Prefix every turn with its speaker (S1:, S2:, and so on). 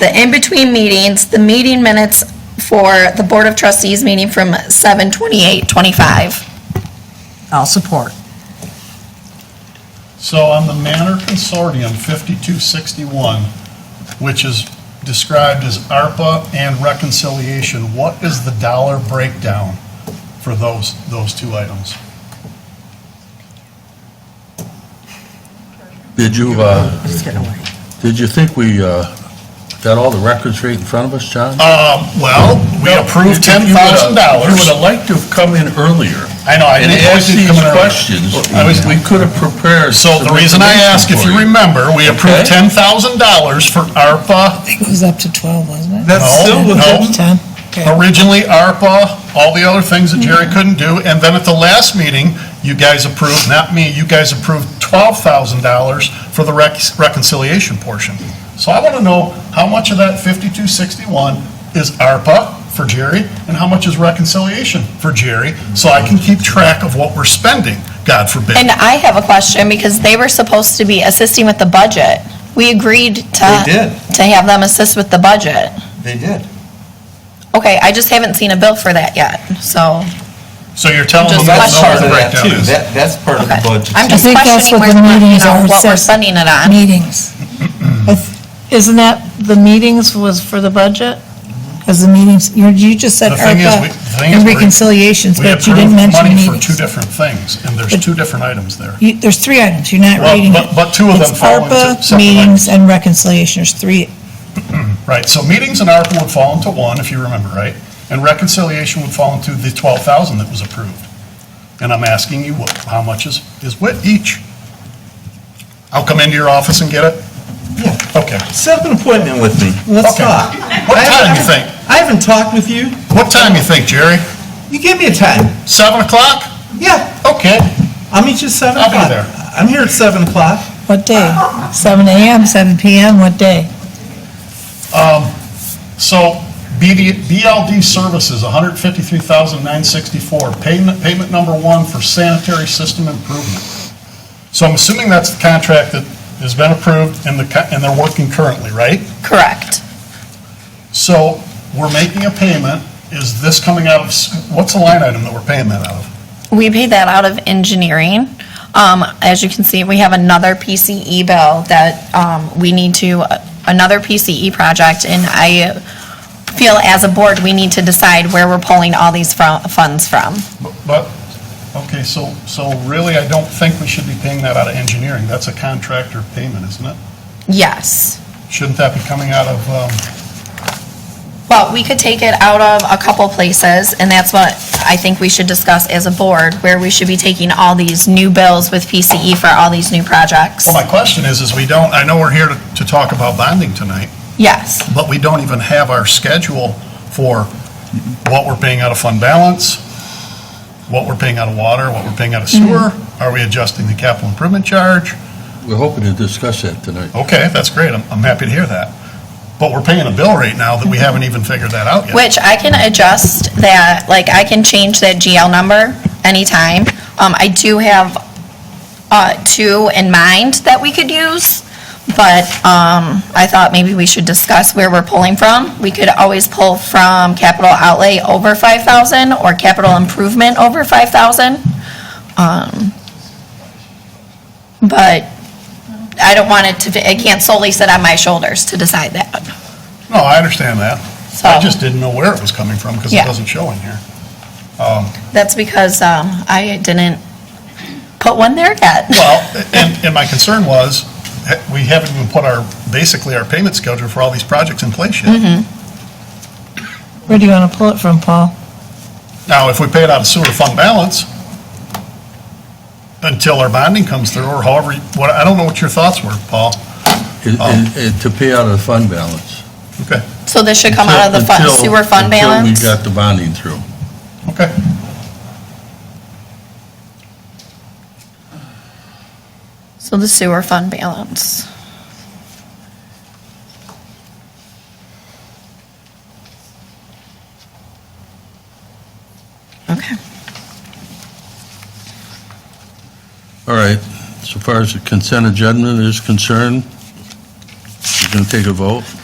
S1: the in-between meetings, the meeting minutes for the Board of Trustees meeting from 7:28:25.
S2: I'll support.
S3: So on the Manor Consortium 5261, which is described as ARPA and reconciliation, what is the dollar breakdown for those, those two items?
S4: Did you, uh,
S2: Just get away.
S4: did you think we uh, got all the records right in front of us, John?
S3: Um, well, we approved $10,000.
S4: You would have liked to have come in earlier
S3: I know, I
S4: and
S3: didn't always
S4: asked
S3: do
S4: these
S3: come in early.
S4: questions.
S3: I was-
S4: We could have prepared.
S3: So the
S4: some
S3: reason I
S4: information
S3: ask, if
S4: for
S3: you remember, we approved
S4: Okay.
S3: $10,000 for ARPA,
S5: It was up to 12, wasn't it?
S4: That's
S3: No,
S4: still
S3: no.
S4: within,
S5: 10.
S3: originally ARPA, all the other things that
S5: Mm-hmm.
S3: Jerry couldn't do, and then at the last meeting, you guys approved, not me, you guys approved $12,000 for the rec- reconciliation portion. So I want to know how much of that 5261 is ARPA for Jerry, and how much is reconciliation for Jerry, so I can keep track of what we're spending, God forbid.
S1: And I have a question, because they were supposed to be assisting with the budget. We agreed to.
S6: They did.
S1: To have them assist with the budget.
S6: They did.
S1: Okay, I just haven't seen a bill for that yet, so.
S3: So you're telling
S1: Just
S3: them
S6: That's
S3: that's
S1: question.
S6: part
S3: part
S6: of
S3: the
S6: that
S3: breakdown
S6: too.
S3: is.
S6: That, that's part of the
S1: okay.
S6: budget.
S1: I'm just
S5: I think that's
S1: questioning
S5: what
S1: where,
S5: the
S1: you
S5: meetings
S1: know,
S5: are,
S1: what we're
S5: says-
S1: spending it on.
S5: Meetings,
S2: I th-
S5: isn't that, the meetings was for the budget?
S2: Because the meetings, you you just said
S3: The thing is, we-
S2: ARPA
S3: the thing is
S2: and
S3: we-
S2: reconciliations,
S3: We
S2: but you didn't
S3: approved
S2: mention
S3: money for two
S2: meetings.
S3: different things, and there's two different items there.
S2: You- There's three items, you're not
S3: Well,
S2: reading
S3: but-
S2: it.
S3: but two of them
S2: It's
S3: fall into
S2: ARPA,
S3: separate items.
S2: meetings, and reconciliation, there's three.
S3: Right, so meetings and ARPA would fall into one, if you remember, right? And reconciliation would fall into the 12,000 that was approved. And I'm asking you, what- how much is, is what each? I'll come into your office and get it?
S6: Yeah.
S3: Okay.
S6: Set up an appointment with me. Let's
S3: Okay.
S6: talk.
S3: What
S6: I
S3: time you
S6: haven't-
S3: think?
S6: I haven't talked with you.
S3: What time you think, Jerry?
S6: You give me a time.
S3: 7 o'clock?
S6: Yeah,
S3: Okay,
S6: I'll meet you at seven
S3: I'll be
S6: o'clock.
S3: there.
S6: I'm here at seven o'clock.
S2: What day? 7 AM, 7 PM, what day?
S3: so BD BLD Services, 153,964, payment, payment number one for sanitary system improvement. So I'm assuming that's the contract that has been approved and the, co- and they're working currently, right?
S1: Correct.
S3: So we're making a payment. Is this coming out of, s- what's the line item that we're paying that out of?
S1: We pay that out of engineering. Um, as you can see, we have another PCE bill that, um, we need to, another PCE project, and I feel as a board, we need to decide where we're pulling all these fro- funds from.
S3: But, okay, so, so really, I don't think we should be paying that out of engineering. That's a contractor payment, isn't it?
S1: Yes.
S3: Shouldn't that be coming out of, um,
S1: Well, we could take it out of a couple places, and that's what I think we should discuss as a board, where we should be taking all these new bills with PCE for all these new projects.
S3: well, my question is, is we don't, I know we're here to, to talk about bonding tonight,
S1: Yes.
S3: but we don't even have our schedule for what we're paying out of fund balance, what we're paying out of water, what we're paying out of
S1: Mm-hmm.
S3: sewer. Are we adjusting the capital improvement charge?
S4: we're hoping to discuss that tonight.
S3: Okay, that's great, I'm, I'm happy to hear that. But we're paying a bill right now that we haven't even figured that out yet.
S1: Which I can adjust that, like, I can change that GL number anytime. Um, I do have, uh, two in mind that we could use, but, um, I thought maybe we should discuss where we're pulling from. We could always pull from capital outlay over five thousand or capital improvement over five thousand. Um, but I don't want it to, it can't solely sit on my shoulders to decide that,
S3: No, I understand that.
S1: so.
S3: I just didn't know where it was coming from because it
S1: Yeah.
S3: doesn't show in here.
S1: That's because um, I didn't put one there yet.
S3: Well, and, and my concern was, eh, we haven't even put our, basically our payment schedule for all these projects in place yet.
S2: Where do you want to pull it from, Paul?
S3: Now, if we pay it out of sewer fund balance, until our bonding comes through, or however, you- what, I don't know what your thoughts were, Paul.
S4: It-
S3: oh.
S4: it- it- To pay out of the fund balance.
S3: Okay,
S1: So this should come out of the fun-
S4: Until-
S1: sewer fund balance?
S4: Until we got the bonding through.
S3: okay.
S1: So the sewer fund balance. Okay.
S4: All right, so far as the consent agenda is concerned, we're going to take a vote.